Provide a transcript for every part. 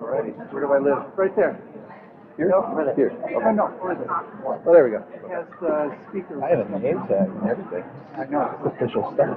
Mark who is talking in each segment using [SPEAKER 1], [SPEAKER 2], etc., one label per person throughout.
[SPEAKER 1] Alrighty, where do I live?
[SPEAKER 2] Right there.
[SPEAKER 1] Here?
[SPEAKER 2] No, right
[SPEAKER 1] Here.
[SPEAKER 2] Oh, no, where is it?
[SPEAKER 1] Well, there we go.
[SPEAKER 2] It has uh, speakers.
[SPEAKER 1] I have a name tag and everything.
[SPEAKER 2] I know.
[SPEAKER 1] It's official stuff.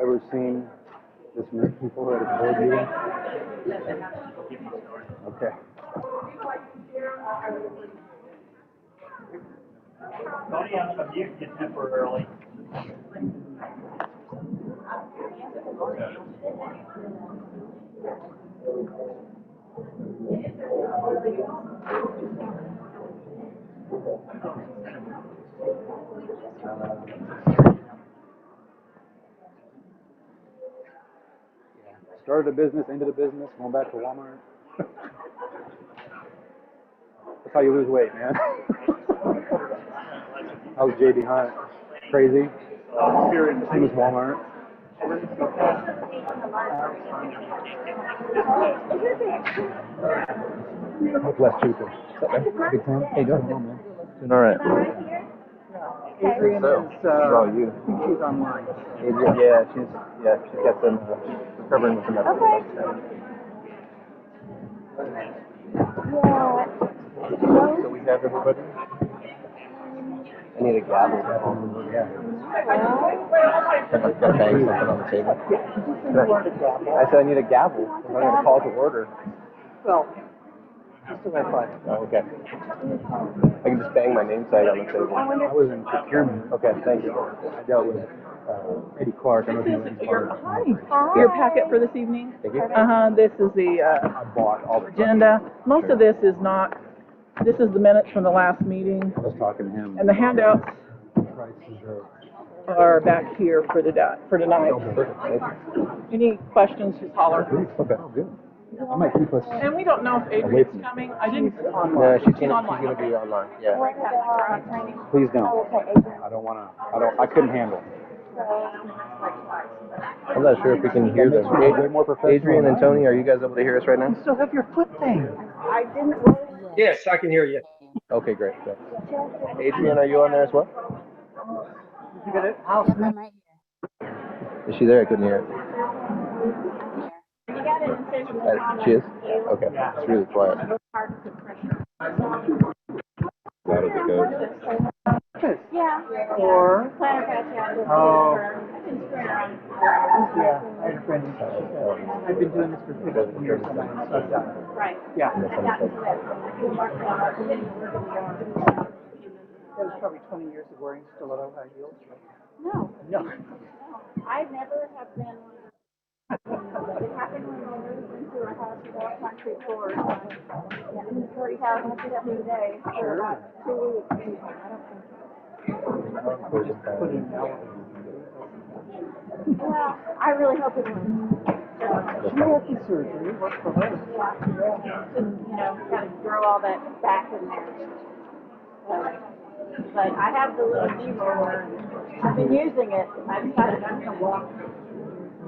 [SPEAKER 1] Ever seen this many people at a board meeting? Okay.
[SPEAKER 3] Tony, I'm gonna mute you temporarily.
[SPEAKER 1] Started a business, ended a business, going back to Walmart. That's how you lose weight, man. How's JB Hunt? Crazy? Same as Walmart. Much less cheaper. Big time. Hey, go ahead, man.
[SPEAKER 4] Doing all right.
[SPEAKER 2] Adrian is,
[SPEAKER 4] So, it's
[SPEAKER 2] uh,
[SPEAKER 4] all
[SPEAKER 2] I
[SPEAKER 4] you.
[SPEAKER 2] think she's online.
[SPEAKER 4] Adrian, yeah, she's yeah, she's got some uh, she's recovering with some medical stuff. So we have everybody. I need a gavel. Gotta bang something on the table. I said I need a gavel. I'm gonna call to order.
[SPEAKER 2] Well, just as I thought.
[SPEAKER 4] Oh, okay. I can just bang my name tag on the table.
[SPEAKER 1] I was in procurement.
[SPEAKER 4] Okay, thank you.
[SPEAKER 1] I dealt with uh, Eddie Clark. I don't know if you know Eddie Clark.
[SPEAKER 5] Your packet for this evening?
[SPEAKER 4] Thank you.
[SPEAKER 5] Uh-huh, this is the uh,
[SPEAKER 1] I bought all the.
[SPEAKER 5] agenda. Most of this is not, this is the minutes from the last meeting,
[SPEAKER 1] I was talking to him.
[SPEAKER 5] and the handouts
[SPEAKER 1] Prices are.
[SPEAKER 5] are back here for the, di- for tonight.
[SPEAKER 4] Perfect, thank you.
[SPEAKER 5] Any questions, just holler.
[SPEAKER 1] Okay. Oh, good. I might keep us.
[SPEAKER 5] And we don't know if Adrian's coming, I didn't,
[SPEAKER 4] No, Uh, she's
[SPEAKER 5] She's
[SPEAKER 4] gonna,
[SPEAKER 5] online,
[SPEAKER 4] she's gonna be online, yeah.
[SPEAKER 1] Please don't. I don't want to. I don't. I couldn't handle. it.
[SPEAKER 4] I'm not sure if we can hear them.
[SPEAKER 1] Way more professional
[SPEAKER 4] Adrian
[SPEAKER 1] than
[SPEAKER 4] and
[SPEAKER 1] I
[SPEAKER 4] Tony, are you guys able to hear us right now?
[SPEAKER 2] Still have your foot thing.
[SPEAKER 3] Yes, I can hear you.
[SPEAKER 4] Okay, great. great. Adrian, are you on there as well?
[SPEAKER 2] You got it?
[SPEAKER 6] Yep, I'm right
[SPEAKER 4] Is she there? I couldn't hear it.
[SPEAKER 6] here.
[SPEAKER 4] Uh, she is? Okay, it's really quiet.
[SPEAKER 2] Yes.
[SPEAKER 6] Yeah.
[SPEAKER 2] Or,
[SPEAKER 6] Planner patch, yeah.
[SPEAKER 2] Oh.
[SPEAKER 6] I can square around.
[SPEAKER 2] yeah, I had a friend, who said, I've been doing this for fifteen years and I'm so done.
[SPEAKER 6] Right.
[SPEAKER 2] Yeah,
[SPEAKER 6] I got to that. I can mark it out. I didn't work on
[SPEAKER 2] that was probably twenty years of wearing stiletto high heels.
[SPEAKER 6] it. No,
[SPEAKER 2] No.
[SPEAKER 6] I never have been. It happened when I moved into a house without concrete floors. Forty thousand feet up a day for about two weeks. I don't think.
[SPEAKER 2] Put in now.
[SPEAKER 6] Well, I really hope it was.
[SPEAKER 2] She had the surgery, worked for her.
[SPEAKER 6] Yeah. Just, you know, kind of throw all that back in there. So, But I have the little knee roller. I've been using it. I decided I'm gonna walk.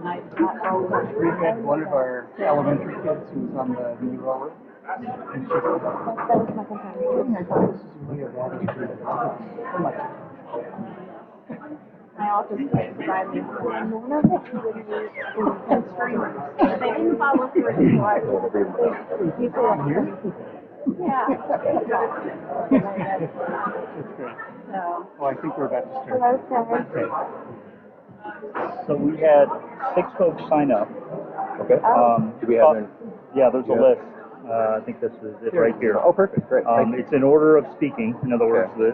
[SPEAKER 6] I, I always.
[SPEAKER 2] We had one of our elementary kids who was on the knee roller. And she said, "Oh,
[SPEAKER 6] That was my companion.
[SPEAKER 2] goodness, I thought this is really a lot of people." I'm like,
[SPEAKER 6] My office kids buy me. One of the two would use the streamers. They didn't follow through. so I was- People like, yeah.
[SPEAKER 2] That's great.
[SPEAKER 6] So,
[SPEAKER 2] Well, Oh, I think we're about to start.
[SPEAKER 6] hello, Sarah.
[SPEAKER 7] So we had six folks sign up.
[SPEAKER 4] Okay.
[SPEAKER 7] Um,
[SPEAKER 4] Do we have their-
[SPEAKER 7] Yeah, there's a
[SPEAKER 4] Yeah.
[SPEAKER 7] list. Uh, I think this is it right here.
[SPEAKER 4] Oh, perfect, great, thank
[SPEAKER 7] Um,
[SPEAKER 4] you.
[SPEAKER 7] it's in order of speaking, in other words,
[SPEAKER 4] Okay.
[SPEAKER 7] the